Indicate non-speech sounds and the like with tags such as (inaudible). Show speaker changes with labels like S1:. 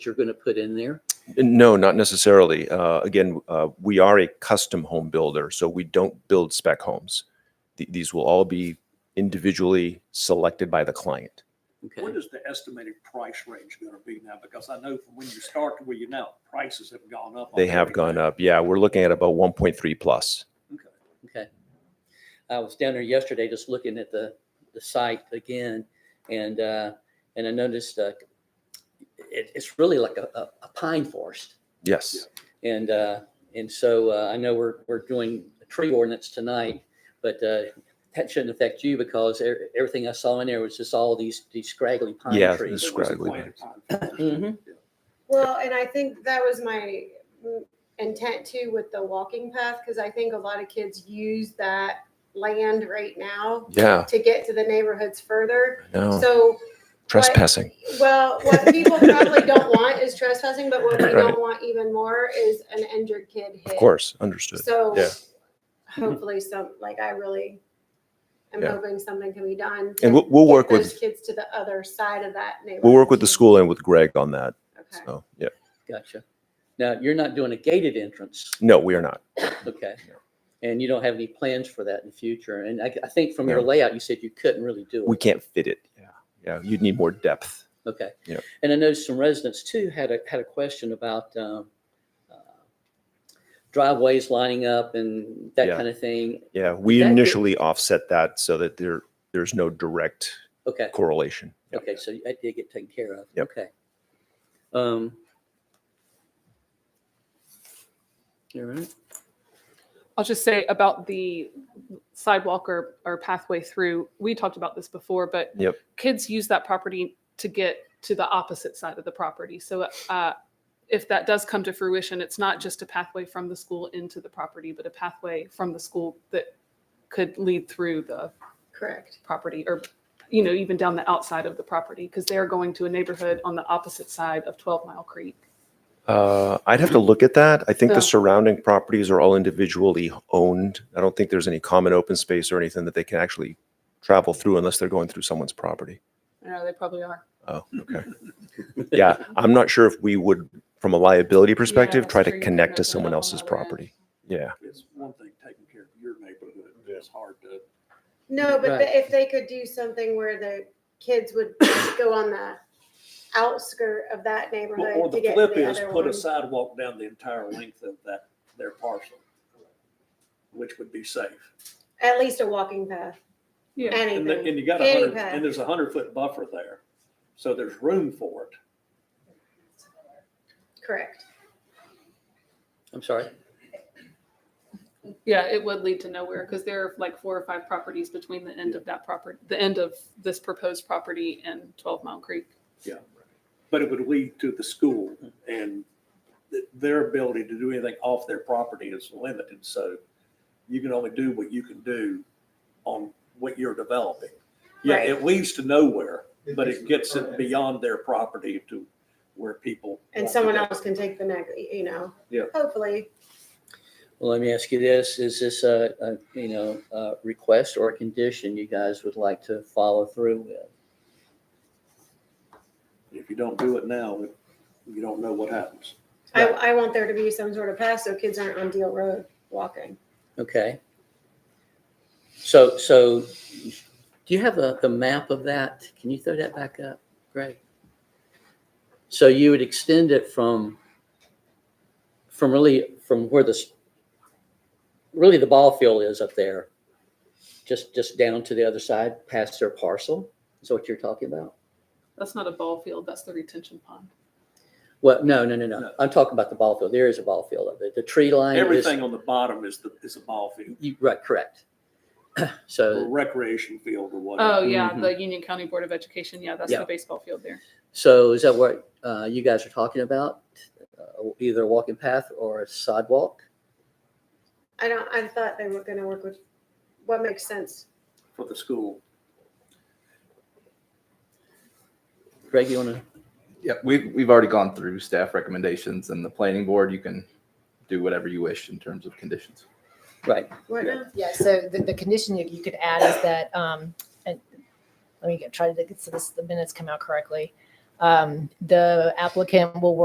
S1: you're going to put in there?
S2: No, not necessarily. Uh, Again, uh, we are a custom home builder, so we don't build spec homes. Th- These will all be individually selected by the client.
S1: Okay,
S3: What is the estimated price range going to be now? Because I know from when you start to where you now, prices have gone up. on
S2: They have gone
S3: everything.
S2: up. Yeah, we're looking at about 1.3 plus.
S1: okay. I was down there yesterday just looking at the, the site again and, uh, and I noticed, uh, it, it's really like a, a a pine forest.
S2: Yes,
S1: And, uh, and so, uh, I know we're, we're doing a tree ordinance tonight, but, uh, that shouldn't affect you because e- everything I saw in there was just all these, these scraggly
S2: Yeah,
S1: pine
S3: It
S1: trees.
S3: was
S2: the Scraggly
S3: planted pine
S1: Mhm.
S3: forest. Yeah.
S4: Well, and I think that was my mm, intent too with the walking path, because I think a lot of kids use that land right now
S2: yeah,
S4: to get to the neighborhoods further.
S2: no,
S4: So,
S2: trespassing.
S4: well, what people probably don't want is trespassing, but what we
S2: Right.
S4: don't want even more is an injured kid hit.
S2: Of course, understood.
S4: So
S2: Yeah.
S4: hopefully some, like I really am
S2: Yeah.
S4: hoping something can be done. to
S2: And we'll, we'll
S4: get
S2: work
S4: Those
S2: with,
S4: kids to the other side of that neighborhood.
S2: we'll work with the
S4: too.
S2: school and with Greg on that.
S4: Okay.
S2: So, yeah.
S1: Gotcha. Now, you're not doing a gated entrance.
S2: No, we are not.
S1: Okay. And you don't have any plans for that in the future. And I, I think from your
S2: No.
S1: layout, you said you couldn't really do it.
S2: We can't fit it. Yeah, yeah, you'd need more depth.
S1: Okay.
S2: Yeah.
S1: And I noticed some residents too had a, had a question about um, uh, driveways lining up and that
S2: Yeah.
S1: kind of thing.
S2: Yeah, we
S1: That could-
S2: initially offset that so that there, there's no direct
S1: Okay.
S2: correlation. Yeah.
S1: Okay. So that did get taken care of.
S2: Yep.
S1: Okay. Um. All right.
S5: I'll just say about the sidewalk or, or pathway through, we talked about this before, but
S2: Yep.
S5: kids use that property to get to the opposite side of the property. So uh, if that does come to fruition, it's not just a pathway from the school into the property, but a pathway from the school that could lead through the
S4: Correct.
S5: property or, you know, even down the outside of the property, because they're going to a neighborhood on the opposite side of 12 Mile Creek.
S2: Uh, I'd have to look at that. I think
S5: Yeah.
S2: the surrounding properties are all individually owned. I don't think there's any common open space or anything that they can actually travel through unless they're going through someone's property.
S5: I know they probably are.
S2: Oh, okay. Yeah, I'm not sure if we would, from a liability perspective,
S5: that's
S2: try
S5: true.
S2: to
S5: You
S2: connect
S5: couldn't
S2: to
S5: open it
S2: someone
S5: up on
S2: else's
S5: the other end.
S2: property. Yeah,
S3: It's one thing taking care of your neighborhood. It's hard to.
S4: No, but
S1: Right.
S4: the- if they could do something where the kids would (coughs) go on the outskirt of that
S3: Or
S4: neighborhood
S3: or
S4: to
S3: the
S4: get
S3: flip
S4: to the
S3: is
S4: other
S3: put
S4: one.
S3: a sidewalk down the entire length of that, their parcel, which would be safe.
S4: At least a walking path.
S5: Yeah.
S3: And the-
S4: Anything.
S3: and you got a
S4: Any
S3: hundred,
S4: path.
S3: and there's a hundred foot buffer there. So there's room for it.
S4: Correct.
S1: I'm sorry.
S5: Yeah, it would lead to nowhere because there are like four or five properties between the end of that property, the end of this proposed property and Twelve Mile Creek.
S3: but it would lead to the school and th- their ability to do anything off their property is limited. So you can only do what you can do on what you're developing. Yeah, it leads to nowhere, but it gets it beyond their property to where people.
S4: And
S3: want to
S4: someone
S3: go.
S4: else can take the next, you know.
S3: Yeah.
S4: Hopefully.
S1: Well, let me ask you this, is this a, a, you know, a request or a condition you guys would like to follow through with?
S3: If you don't do it now, you don't know what happens.
S4: I,
S1: Right.
S4: I want there to be some sort of path so kids aren't on Deal Road walking.
S1: Okay. So, so do you have the, the map of that? Can you throw that back up? Great. So you would extend it from, from really, from where this, really the ball field is up there, just, just down to the other side, past their parcel? Is that what you're talking about?
S5: That's not a ball field, that's the retention pond.
S1: Well, no, no, no, no.
S3: No.
S1: I'm talking about the ball field. There is a ball field of it. The tree line is,
S3: Everything on the bottom is the, is a ball field
S1: you- right, correct. (clears throat)
S3: or
S1: So,
S3: recreation field or
S5: Oh,
S3: whatever.
S5: yeah,
S1: Mhm.
S5: the Union County Board of Education, yeah, that's
S1: Yeah.
S5: the baseball field there.
S1: so is that what uh, you guys are talking about? Uh, Either a walking path or a sidewalk?
S4: I don't, I thought they were gonna work with, what makes sense?
S3: For the school.
S1: Greg, you want to?
S6: Yeah, we've, we've already gone through staff recommendations and the planning board, you can do whatever you wish in terms of conditions.
S1: Right.
S4: What now?
S7: Yeah, so the, the condition that you could add is that, um, and let me get, try to get, so this, the minutes come out correctly. Um, Um, The applicant will work